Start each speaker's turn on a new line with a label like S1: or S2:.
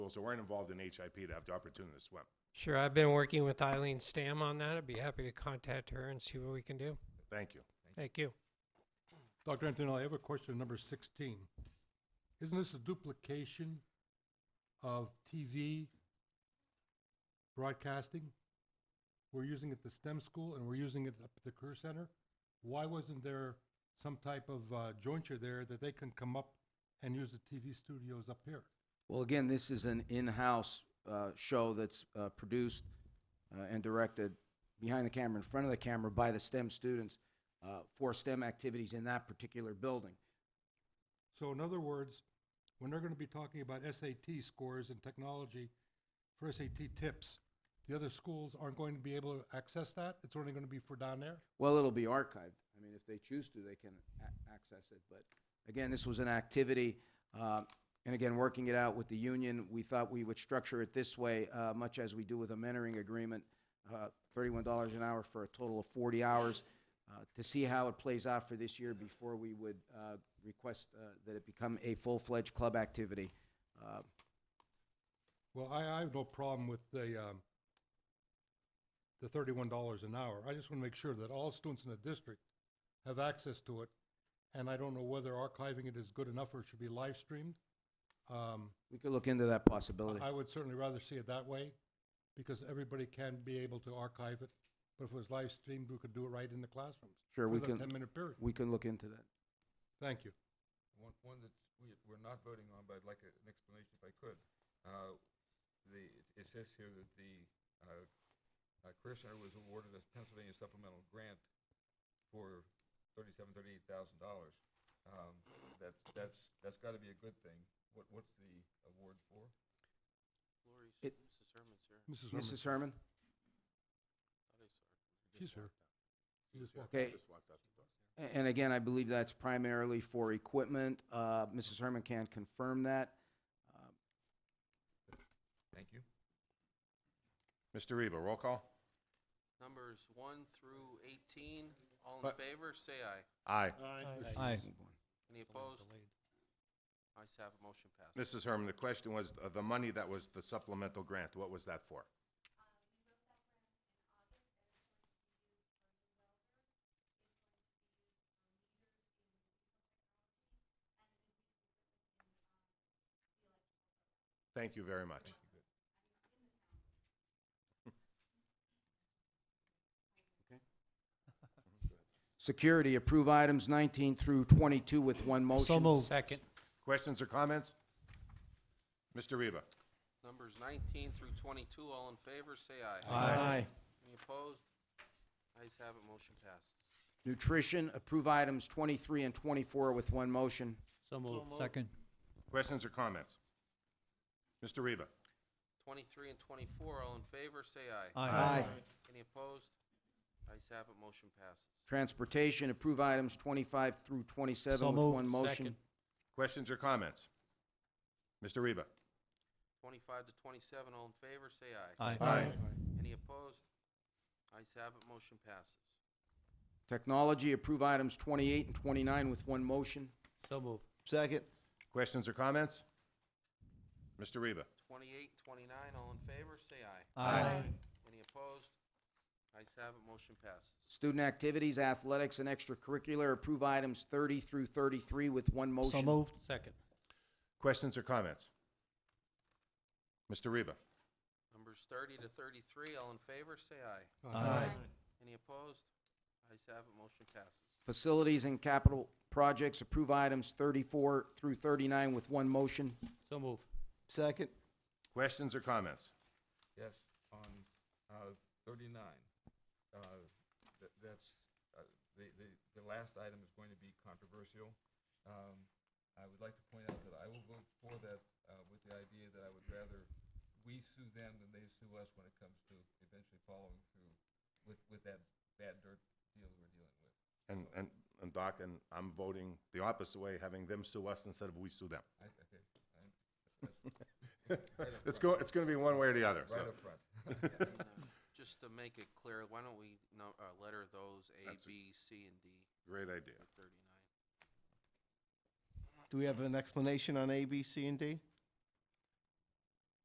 S1: schools that weren't involved in HIP to have the opportunity to swim.
S2: Sure, I've been working with Eileen Stam on that. I'd be happy to contact her and see what we can do.
S1: Thank you.
S2: Thank you.
S3: Dr. Antonelli, I have a question, number sixteen. Isn't this a duplication of TV broadcasting? We're using it at the STEM school and we're using it up at the Career Center. Why wasn't there some type of uh, jointure there that they can come up and use the TV studios up here?
S4: Well, again, this is an in-house uh, show that's uh, produced uh, and directed behind the camera, in front of the camera, by the STEM students uh, for STEM activities in that particular building.
S3: So in other words, when they're going to be talking about SAT scores and technology for SAT tips, the other schools aren't going to be able to access that? It's only going to be for down there?
S4: Well, it'll be archived. I mean, if they choose to, they can a- access it. But again, this was an activity, uh, and again, working it out with the union, we thought we would structure it this way, uh, much as we do with a mentoring agreement, uh, thirty-one dollars an hour for a total of forty hours, uh, to see how it plays out for this year before we would uh, request uh, that it become a full-fledged club activity. Uh,
S3: Well, I, I have no problem with the, um, the thirty-one dollars an hour. I just want to make sure that all students in the district have access to it. And I don't know whether archiving it is good enough or it should be live streamed. Um,
S4: We could look into that possibility.
S3: I would certainly rather see it that way because everybody can be able to archive it. But if it was live streamed, we could do it right in the classrooms.
S4: Sure, we
S3: For
S4: can-
S3: that ten-minute period.
S4: We can look into that.
S3: Thank you.
S5: One, one that we, we're not voting on, but I'd like a- an explanation if I could. Uh, The, it says here that the uh, uh, Career Center was awarded a Pennsylvania supplemental grant for thirty-seven, thirty-eight thousand dollars. Um, That's, that's, that's gotta be a good thing. What, what's the award for?
S4: It-
S3: Mrs. Herman,
S4: Mrs. Herman?
S3: she's here. She just walked.
S4: Okay. A- And again, I believe that's primarily for equipment. Uh, Mrs. Herman can confirm that. Uh,
S5: Thank you.
S1: Mr. Reba, roll call.
S6: Numbers one through eighteen, all in
S1: But-
S6: favor, say aye.
S1: Aye.
S7: Aye.
S6: Any opposed? Ayes have, it, motion passes.
S1: Mrs. Herman, the question was, uh, the money that was the supplemental grant, what was that for? Thank you very much.
S4: Security, approve items 19 through 22 with one motion.
S7: So moved.
S2: Second.
S1: Questions or comments? Mr. Reba?
S6: Numbers nineteen through twenty-two, all in favor, say aye.
S4: Aye.
S6: Any opposed? Ayes have, it, motion passes.
S4: Nutrition, approve items 23 and 24 with one motion.
S7: So moved. Second.
S1: Questions or comments? Mr. Reba?
S6: Twenty-three and twenty-four, all in favor, say aye. Any opposed? Ayes have, it, motion passes.
S4: Transportation, approve items 25 through 27
S7: So
S4: with
S7: moved.
S4: one motion.
S7: Second.
S1: Questions or comments? Mr. Reba?
S6: Twenty-five to twenty-seven, all in favor, say aye.
S7: Aye.
S6: Any opposed? Ayes have, it, motion passes.
S4: Technology, approve items 28 and 29 with one motion.
S7: So moved.
S4: Second.
S1: Questions or comments? Mr. Reba?
S6: Twenty-eight, twenty-nine, all in favor, say aye.
S7: Aye.
S6: Any opposed? Ayes have, it, motion passes.
S4: Student activities, athletics, and extracurricular, approve items 30 through 33 with one motion.
S7: So moved.
S2: Second.
S1: Questions or comments? Mr. Reba?
S6: Numbers thirty to thirty-three, all in favor, say aye.
S7: Aye.
S6: Any opposed? Ayes have it, motion passes.
S4: Facilities and capital projects, approve items 34 through 39 with one motion.
S7: So moved.
S4: Second.
S1: Questions or comments?
S5: Yes, on uh, thirty-nine. Uh, tha- That's, uh, the, the, the last item is going to be controversial. Um, I would like to point out that I will vote for that uh, with the idea that I would rather we sue them than they sue us when it comes to eventually following through with, with that bad dirt deal that we're dealing with.
S1: And, and, and Doc, and I'm voting the opposite way, having them sue us instead of we sue them.
S5: I, okay, I'm
S1: It's go, it's gonna be one way or the other, so.
S5: right up front.
S6: Just to make it clear, why don't we, no, uh, letter those A,
S1: That's a-
S6: B, C, and D
S1: Great idea.
S6: for thirty-nine?
S8: Do we have an explanation on A, B, C, and D?